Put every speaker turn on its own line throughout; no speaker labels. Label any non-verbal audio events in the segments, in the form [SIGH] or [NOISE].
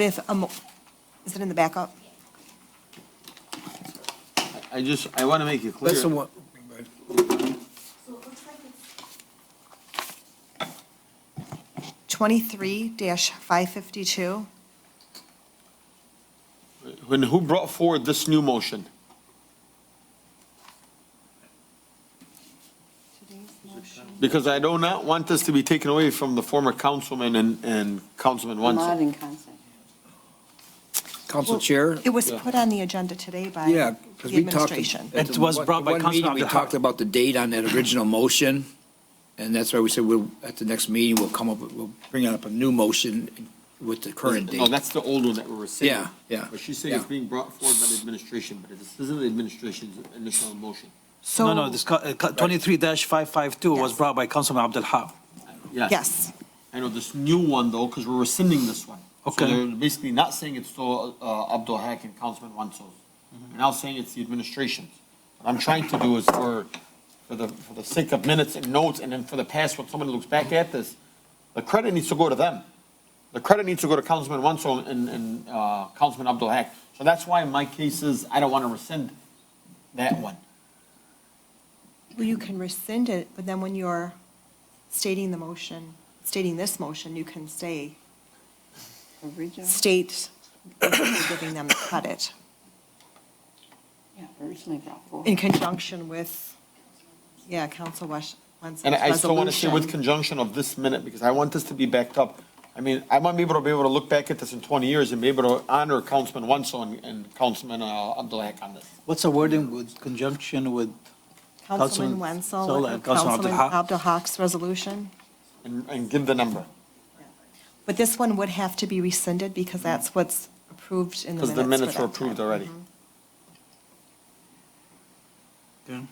If, a mo- is it in the backup?
I just, I want to make it clear.
That's the one,
So it looks like it's,
23-552?
When, who brought forward this new motion? Because I do not want this to be taken away from the former councilman and, and Councilman Wenzel.
Modern concept.
council chair.
It was
Yeah.
put on the agenda today by
Yeah, because
the
we talked.
administration.
at the
It was
one-
brought by
one
Councilman
meeting, We
Abdul Haq.
talked about the date on that original motion, and that's why we said we'll, at the next meeting, we'll come up, with- we'll bring up a new motion with the
Oh,
current
No,
date.
that's the old one that we were saying.
Yeah, yeah,
But she's saying it's
yeah.
being brought forward by the administration, but this isn't the administration's initial motion.
So.
No, no, this, co- uh, co- 23-552 was
Yes.
brought by Councilman Abdul Haq.
Yes.
Yes,
I know this new one though, because we're rescinding this one. So
Okay.
they're basically not saying it's still uh, Abdul Haq and Councilman Wenzel's. They're now saying it's the administration's. What I'm trying to do is for, for the, for the sake of minutes and notes, and then for the past, when somebody looks back at this, the credit needs to go to them. The credit needs to go to Councilman Wenzel and, and uh, Councilman Abdul Haq. So that's why in my case is, I don't want to rescind that one.
well, you can rescind it, but then when you're stating the motion, stating this motion, you can say,
Original,
state, [COUGHS] giving them the credit
yeah, originally brought
in
forward.
conjunction with, yeah, Council Wes- Wenzel's
And
resolution.
I I still want to say with conjunction of this minute, because I want this to be backed up. I mean, I want to be able to be able to look back at this in 20 years and be able to honor Councilman Wenzel and- and Councilman uh, Abdul Haq on this.
What's the wording with conjunction with,
Councilman
Councilman
Wenzel,
Zola
and
and Councilman Abdul
Councilman
Haq.
Abdul Haq's resolution.
And and give the number,
But this one would have to be rescinded because that's what's approved in the minutes.
because the minutes
for
were
that Mm-hmm. time.
approved already.
so you, you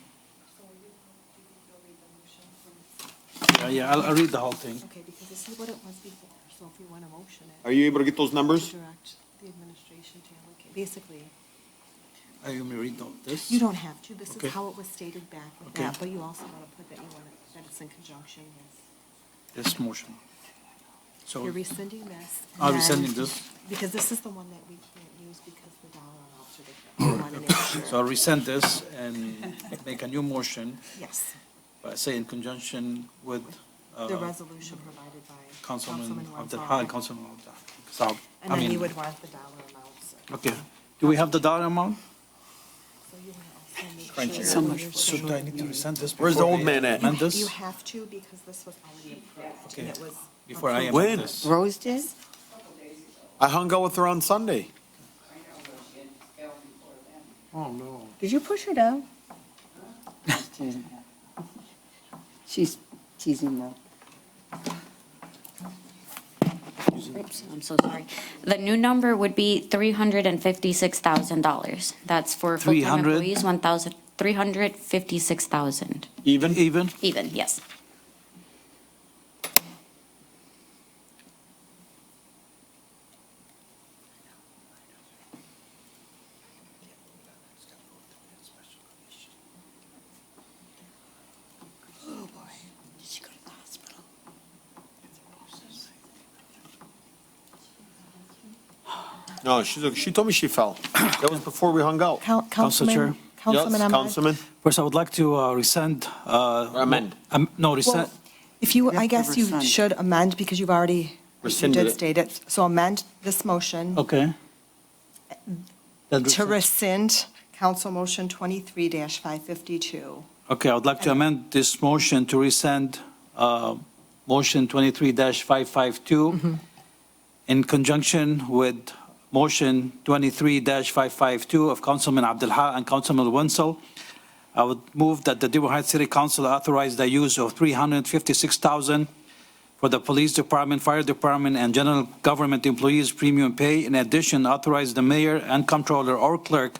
can go read the motion from.
yeah, yeah, I'll I'll read the whole thing.
Okay, because this is what it was before, so if we want to motion
Are you able to get those numbers?
direct the administration to allocate. Basically,
Are you going to read the- this?
you don't have to, this
Okay.
is how it was stated back with
Okay.
that, but you also want to put that you want it, that it's in conjunction with.
This motion. So
You're rescinding this. and
I'll
then-
rescinding this.
Because this is the one that we can't use because the dollar amounts are
[COUGHS]
different. We want to make
So uh,
sure.
I'll rescind this and make a new motion,
Yes,
but say in conjunction with uh,
the resolution provided by
Councilman
Councilman
Abdul
Wenzel.
Haq, Councilman Abdul Haq. So,
And
I
then you
mean,
would want the dollar amounts.
okay. Do we have the dollar amount?
So you want to also
Crunch
make sure.
it.
So
that
much
you're
for
sure
So do I need to rescind this?
Where's the
before
old
we
man at?
Amend
You
this
have to because this was already approved and it was.
before I
approved.
amend this?
Rose did?
I hung out with her on Sunday.
Did you push her down? She's teasing though.
Oops, I'm so sorry. The new number would be three hundred and fifty-six thousand dollars. That's for full-time
300?
employees, one thousand, three hundred fifty-six thousand
Even? Even?
even, yes.
Did she go to the hospital?
No, she's, she told me she fell.
[CLEARS THROAT]
That was before we hung out.
Coun-
Council
Councilman,
Chair.
Councilman
Yes,
Ahmad.
Councilman,
First, I would like to uh, rescind. uh,
Amend.
am- No, rescind,
Well, If you, I
have to
guess you
rescind.
should amend because you've already, you
Rescinded
did
it.
state it. So amend this motion
okay. Then
to rescind
rescind.
Council Motion 23-552.
Okay, I would like to amend this motion to rescind uh, motion 23-552 in conjunction with motion 23-552 of Councilman Abdul Haq and Councilman Wenzel. I would move that the Dearborn Heights City Council authorize the use of 356000 for the Police Department, Fire Department, and General Government Employees Premium Pay. In addition, authorize the mayor and comptroller or clerk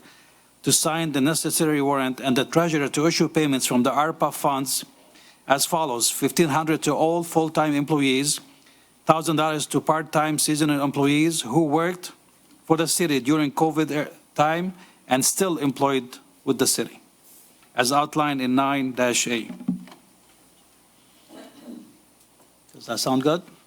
to sign the necessary warrant and the treasurer to issue payments from the ARPA funds as follows, 1,500 to all full-time employees, $1,000 to part-time seasonal employees who worked for the city during COVID er- time and still employed with the city, as outlined in 9-A. Does that sound good?